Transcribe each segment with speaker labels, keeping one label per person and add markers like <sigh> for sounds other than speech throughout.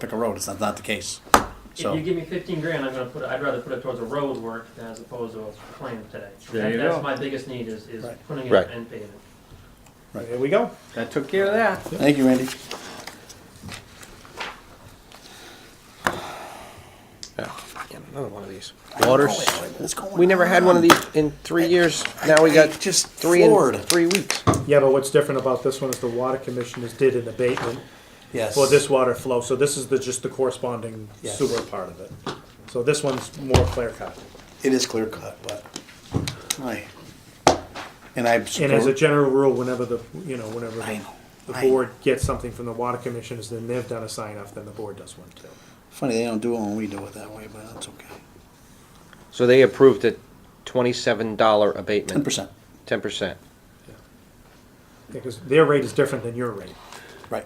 Speaker 1: pick a road, it's not, not the case.
Speaker 2: If
Speaker 1: So,
Speaker 2: you give me fifteen grand, I'm gonna put, it- I'd rather put it towards a road work as opposed to a plan today.
Speaker 3: There
Speaker 2: That-
Speaker 3: you
Speaker 2: That's
Speaker 3: go.
Speaker 2: my biggest need is, is
Speaker 1: Right.
Speaker 2: putting
Speaker 4: Right.
Speaker 2: it in pavement.
Speaker 3: There we go. That took care of that.
Speaker 1: thank you, Andy.
Speaker 4: Yeah, Another one of these. Waters.
Speaker 1: What's going
Speaker 4: We never had one of these in three years. Now we got
Speaker 1: Just
Speaker 4: three in
Speaker 1: floored.
Speaker 4: three weeks.
Speaker 3: Yeah, but what's different about this one is the water commissioners did an abatement
Speaker 1: Yes.
Speaker 3: for this water flow, so this is the, just the corresponding
Speaker 1: Yes.
Speaker 3: sewer part of it. So this one's more clear cut.
Speaker 1: It is clear cut, but, aye. And I
Speaker 3: And as a
Speaker 1: support,
Speaker 3: general rule, whenever the, you know, whenever
Speaker 1: I
Speaker 3: the
Speaker 1: know.
Speaker 3: the
Speaker 1: I-
Speaker 3: board gets something from the water commissioners, then they've done a sign off, then the board does one too.
Speaker 1: Funny, they don't do it when we do it that way, but that's okay.
Speaker 4: So they approved a twenty-seven dollar
Speaker 1: Ten
Speaker 4: abatement.
Speaker 1: percent,
Speaker 4: Ten percent.
Speaker 3: Because their rate is different than your rate.
Speaker 1: right,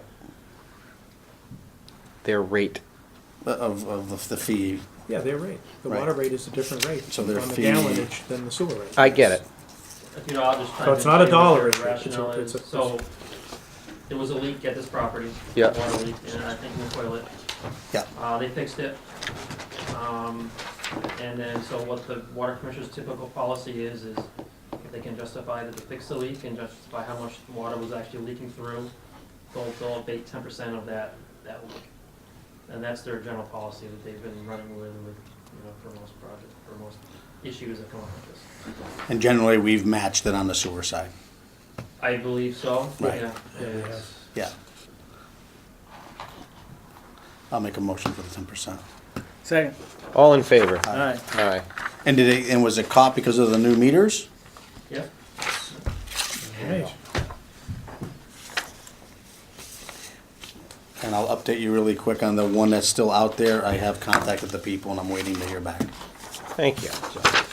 Speaker 4: Their rate.
Speaker 1: Uh, of, of the- the fee,
Speaker 3: Yeah, their rate. The
Speaker 1: Right.
Speaker 3: water rate is a different rate
Speaker 1: So
Speaker 3: on
Speaker 1: their
Speaker 3: the
Speaker 1: fee-
Speaker 3: gallonage than the sewer rate.
Speaker 4: I get it.
Speaker 2: If You know, I'll just try
Speaker 3: So
Speaker 2: to.
Speaker 3: it's not a
Speaker 2: explain what their
Speaker 3: dollar issue, it's a-
Speaker 2: Rationale is,
Speaker 3: it's a-
Speaker 2: so, there was a leak at this property.
Speaker 4: Yeah.
Speaker 2: Water leak, and I think in the toilet.
Speaker 1: Yeah.
Speaker 2: Uh, they fixed it. Um, and then, so what the water commissioner's typical policy is, is if they can justify that they fixed the leak and justify how much water was actually leaking through, they'll, they'll abate ten percent of that, that leak. And that's their general policy that they've been running with, with, you know, for most projects, for most issues that come up with this.
Speaker 1: and generally, we've matched it on the sewer side,
Speaker 2: I believe so,
Speaker 1: Right.
Speaker 2: yeah.
Speaker 3: Yeah, we
Speaker 2: Yes.
Speaker 1: yeah. I'll make a motion for the ten percent.
Speaker 5: Second.
Speaker 4: All in favor?
Speaker 5: All right.
Speaker 4: Aye.
Speaker 1: And did it, and was it caught because of the new meters?
Speaker 2: Yep.
Speaker 3: Right.
Speaker 1: And I'll update you really quick on the one that's still out there. I have contacted the people and I'm waiting to hear back.
Speaker 4: Thank you,
Speaker 1: So,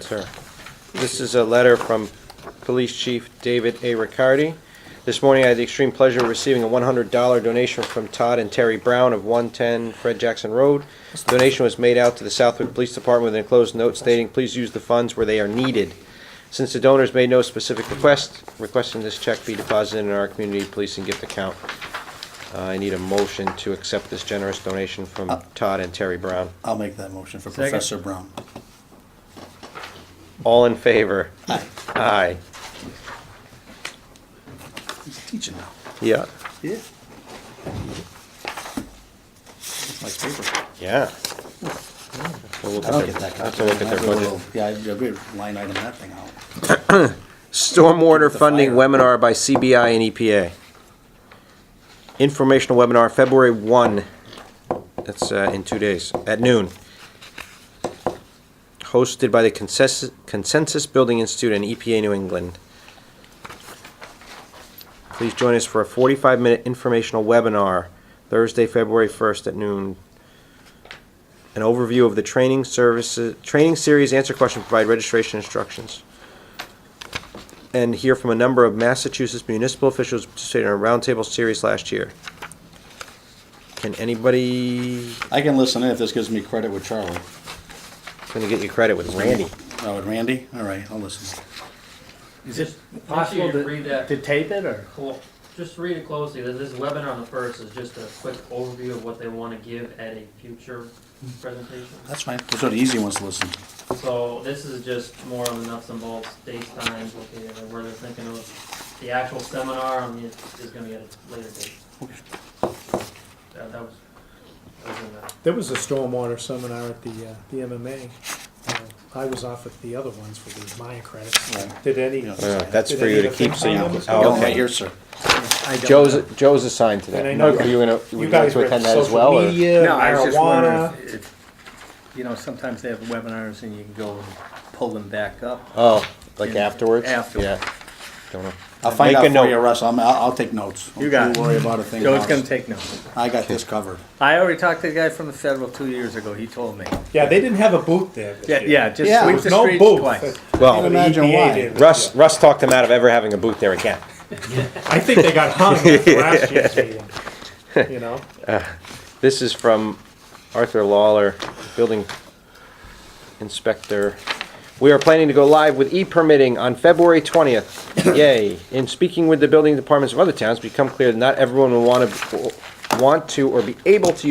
Speaker 4: sir. This is a letter from Police Chief David A. Riccardi. This morning, I had the extreme pleasure of receiving a one hundred dollar donation from Todd and Terry Brown of one ten Fred Jackson Road. Donation was made out to the Southwick Police Department with an enclosed note stating, please use the funds where they are needed. Since the donors made no specific request, requesting this check be deposited in our community policing gift account. Uh, I need a motion to accept this generous donation from Todd and Terry Brown.
Speaker 1: I'll make that motion for
Speaker 5: Second.
Speaker 1: Professor Brown.
Speaker 4: All in favor?
Speaker 1: Hi,
Speaker 4: Aye.
Speaker 1: he's teaching now.
Speaker 4: Yeah.
Speaker 1: Yeah. Nice paper.
Speaker 4: Yeah. We'll look
Speaker 1: I don't
Speaker 4: at their-
Speaker 1: get that.
Speaker 4: Have to look at their
Speaker 1: copy. I have a
Speaker 4: budget.
Speaker 1: little- Yeah, I'd agree, line item that thing out.
Speaker 4: Stormwater
Speaker 1: The
Speaker 4: funding
Speaker 1: fire.
Speaker 4: webinar by CBI and EPA. Informational webinar, February one. That's uh, in two days, at noon. Hosted by the Consensus, Consensus Building Institute and EPA New England. Please join us for a forty-five minute informational webinar, Thursday, February first at noon. An overview of the training services, training series, answer questions, provide registration instructions and hear from a number of Massachusetts municipal officials participating in a roundtable series last year. Can anybody,
Speaker 1: I can listen in if this gives me credit with Charlie.
Speaker 4: gonna get you credit with Randy.
Speaker 1: Oh, with Randy? All right, I'll listen.
Speaker 5: Is it
Speaker 2: Make sure
Speaker 5: possible
Speaker 2: you read
Speaker 5: to,
Speaker 2: that.
Speaker 5: to tape it or?
Speaker 2: Cool. Just read it closely. This- This webinar on the first is just a quick overview of what they want to give at a future presentation.
Speaker 1: That's fine. Those are the easy ones to listen to.
Speaker 2: So this is just more on the nuts and bolts, dates, times, located, and where they're thinking of. The actual seminar on the, is gonna be at a later date. That, that was, that was in that.
Speaker 3: There was a stormwater seminar at the, uh, the MMA. Uh, I was off at the other ones for the Maya credits.
Speaker 1: Right.
Speaker 3: Did any?
Speaker 1: Yeah.
Speaker 4: Uh, That's
Speaker 3: did
Speaker 4: for
Speaker 3: any
Speaker 4: you to
Speaker 3: of the
Speaker 4: keep, so you.
Speaker 3: FinCom members
Speaker 4: oh,
Speaker 3: go?
Speaker 1: Got one
Speaker 4: okay.
Speaker 1: right here, sir.
Speaker 4: Joe's, Joe's assigned to
Speaker 3: And I
Speaker 4: that.
Speaker 3: know
Speaker 4: Are you gonna, would
Speaker 3: You
Speaker 4: you like
Speaker 3: guys
Speaker 4: to
Speaker 3: were at
Speaker 4: attend that as well,
Speaker 3: social
Speaker 4: or?
Speaker 3: media,
Speaker 5: No, I was just
Speaker 3: marijuana.
Speaker 5: wondering if, if, you know, sometimes they have webinars and you can go and pull them back up.
Speaker 4: Oh, like afterwards?
Speaker 5: Afterwards.
Speaker 4: Yeah. Don't know.
Speaker 1: I'll find
Speaker 4: Make
Speaker 1: out
Speaker 4: a
Speaker 1: for
Speaker 4: note.
Speaker 1: you, Russ. I'm, I'll, I'll take notes.
Speaker 5: You got
Speaker 1: Don't
Speaker 5: it.
Speaker 1: worry about a thing.
Speaker 5: Joe's
Speaker 1: Russ.
Speaker 5: gonna take notes.
Speaker 1: I got this covered.
Speaker 5: I already talked to the guy from the federal two years ago. He told me.
Speaker 3: Yeah, they didn't have a booth there. this
Speaker 5: Yeah,
Speaker 3: year.
Speaker 5: yeah, just
Speaker 1: Yeah.
Speaker 3: There
Speaker 5: sweep
Speaker 3: was
Speaker 5: the
Speaker 3: no
Speaker 5: streets
Speaker 3: booth.
Speaker 5: twice.
Speaker 1: Can't
Speaker 4: Well, E
Speaker 3: The
Speaker 1: imagine
Speaker 3: EPA
Speaker 1: why.
Speaker 3: did this
Speaker 4: Russ,
Speaker 3: year.
Speaker 4: Russ talked him out of ever having a booth there again.
Speaker 3: I think they got hung after
Speaker 4: <laughs>
Speaker 3: last year's meeting, you know?
Speaker 4: This is from Arthur Lawler, Building Inspector. We are planning to go live with e-permitting on February 20th. Yay. In speaking with the building departments of other towns, it's become clear that not everyone will want to, want to or be able to